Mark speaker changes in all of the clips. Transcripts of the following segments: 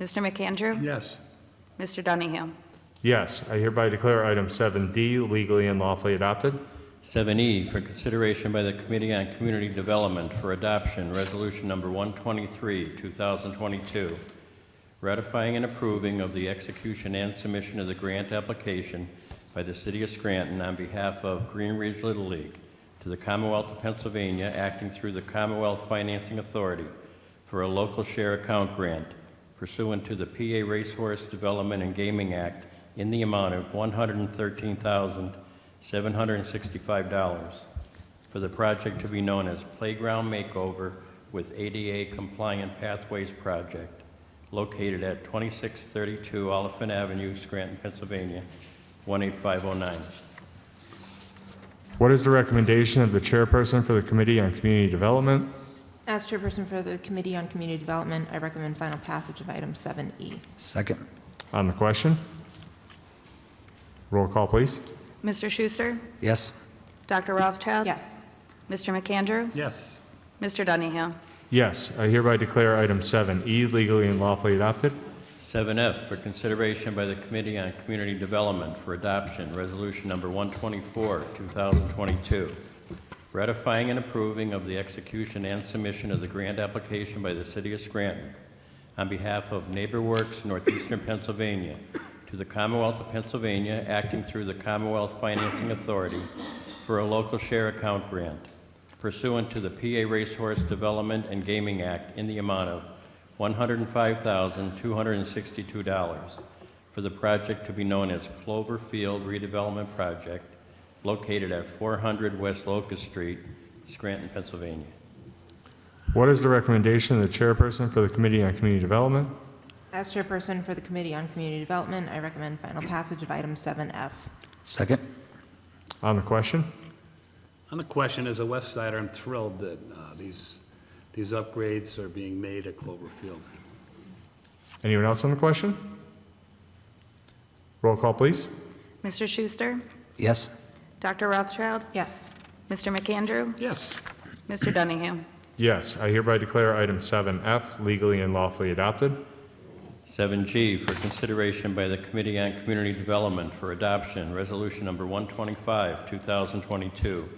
Speaker 1: Mr. McAndrew?
Speaker 2: Yes.
Speaker 1: Mr. Dunningham?
Speaker 3: Yes, I hereby declare item 7D legally and lawfully adopted.
Speaker 4: 7E E, for consideration by the Committee on Community Development for Adoption, Resolution Number 123, 2022, ratifying and approving of the execution and submission of the grant application by the City of Scranton on behalf of Green Ridge Little League to the Commonwealth of Pennsylvania, acting through the Commonwealth Financing Authority for a local share account grant pursuant to the PA Racehorse Development and Gaming Act in the amount of $113,765 for the project to be known as Playground Makeover with ADA Compliant Pathways Project, located at 2632 Oliphant Avenue, Scranton, Pennsylvania, 18509.
Speaker 3: What is the recommendation of the chairperson for the Committee on Community Development?
Speaker 5: As chairperson for the Committee on Community Development, I recommend final passage of item E. 7E.
Speaker 2: Second.
Speaker 3: On the question? Roll call, please.
Speaker 1: Mr. Schuster?
Speaker 2: Yes.
Speaker 1: Dr. Rothschild?
Speaker 5: Yes.
Speaker 1: Mr. McAndrew?
Speaker 2: Yes.
Speaker 1: Mr. Dunningham?
Speaker 3: Yes, I hereby declare item 7E legally and lawfully adopted.
Speaker 4: 7F for consideration by the Committee on Community Development for Adoption, Resolution Number 124, 2022, ratifying and approving of the execution and submission of the grant application by the City of Scranton on behalf of NeighborWorks Northeastern Pennsylvania to the Commonwealth of Pennsylvania, acting through the Commonwealth Financing Authority for a local share account grant pursuant to the PA Racehorse Development and Gaming Act in the amount of $105,262 for the project to be known as Clover Field redevelopment project located at 400 West Locust Street, Scranton, Pennsylvania.
Speaker 3: What is the recommendation of the chairperson for the Committee on Community Development?
Speaker 5: As chairperson for the Committee on Community Development, I recommend final passage of item 7F.
Speaker 2: Second.
Speaker 3: On the question?
Speaker 6: On the question, as a West Sider, I'm thrilled that uh, these, these upgrades are being made at Cloverfield.
Speaker 3: Anyone else on the question? Roll call, please.
Speaker 1: Mr. Schuster?
Speaker 2: Yes.
Speaker 1: Dr. Rothschild?
Speaker 5: Yes.
Speaker 1: Mr. McAndrew?
Speaker 6: Yes.
Speaker 1: Mr. Dunningham?
Speaker 3: Yes, I hereby declare item 7F legally and lawfully adopted.
Speaker 4: 7G for consideration by the Committee on Community Development for Adoption, Resolution Number 125, 2022,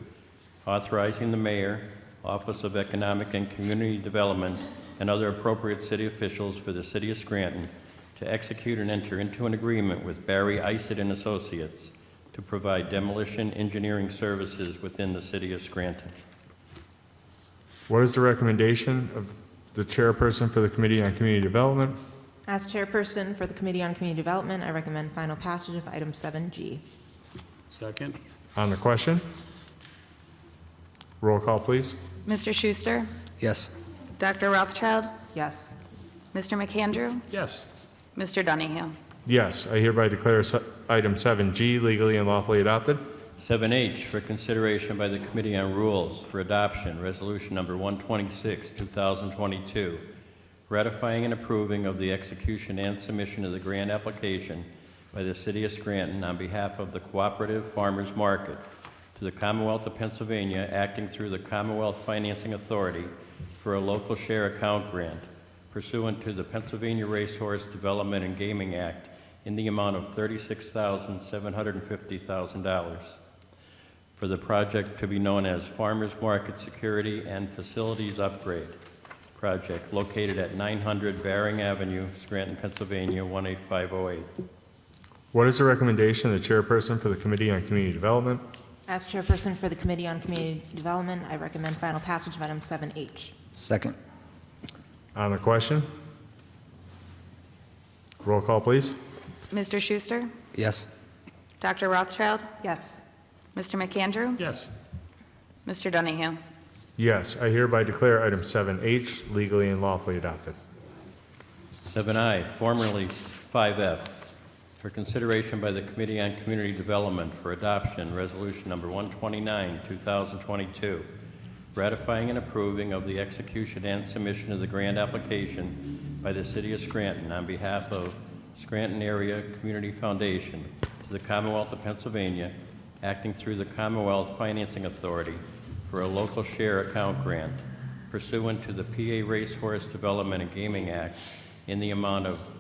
Speaker 4: authorizing the mayor, Office of Economic and Community Development, and other appropriate city officials for the city of Scranton to execute and enter into an agreement with Barry Isid and Associates to provide demolition engineering services within the city of Scranton.
Speaker 3: What is the recommendation of the chairperson for the Committee on Community Development?
Speaker 5: As chairperson for the Committee on Community Development, I recommend final passage of item 7G.
Speaker 6: Second?
Speaker 3: On the question? Roll call, please.
Speaker 1: Mr. Schuster?
Speaker 2: Yes.
Speaker 1: Dr. Rothschild?
Speaker 5: Yes.
Speaker 1: Mr. McAndrew?
Speaker 6: Yes.
Speaker 1: Mr. Dunningham?
Speaker 3: Yes, I hereby declare se- item 7G legally and lawfully adopted.
Speaker 4: 7H for consideration by the Committee on Rules for Adoption, Resolution Number 126, 2022, ratifying and approving of the execution and submission of the grant application by the City of Scranton on behalf of the Cooperative Farmers Market to the Commonwealth of Pennsylvania, acting through the Commonwealth Financing Authority for a local share account grant pursuant to the Pennsylvania Racehorse Development and Gaming Act in the amount of $36,750,000 for the project to be known as Farmers Market Security and Facilities Upgrade Project located at 900 Baring Avenue, Scranton, Pennsylvania, 18508.
Speaker 3: What is the recommendation of the chairperson for the Committee on Community Development?
Speaker 5: As chairperson for the Committee on Community Development, I recommend final passage of item 7H.
Speaker 2: Second.
Speaker 3: On the question? Roll call, please.
Speaker 1: Mr. Schuster?
Speaker 2: Yes.
Speaker 1: Dr. Rothschild?
Speaker 5: Yes.
Speaker 1: Mr. McAndrew?
Speaker 6: Yes.
Speaker 1: Mr. Dunningham?
Speaker 3: Yes, I hereby declare item 7H legally and lawfully adopted.
Speaker 4: 7I, formerly 5F, for consideration by the Committee on Community Development for Adoption, Resolution Number 129, 2022, ratifying and approving of the execution and submission of the grant application by the City of Scranton on behalf of Scranton Area Community Foundation to the Commonwealth of Pennsylvania, acting through the Commonwealth Financing Authority for a local share account grant pursuant to the PA Racehorse Development and Gaming Act in the amount of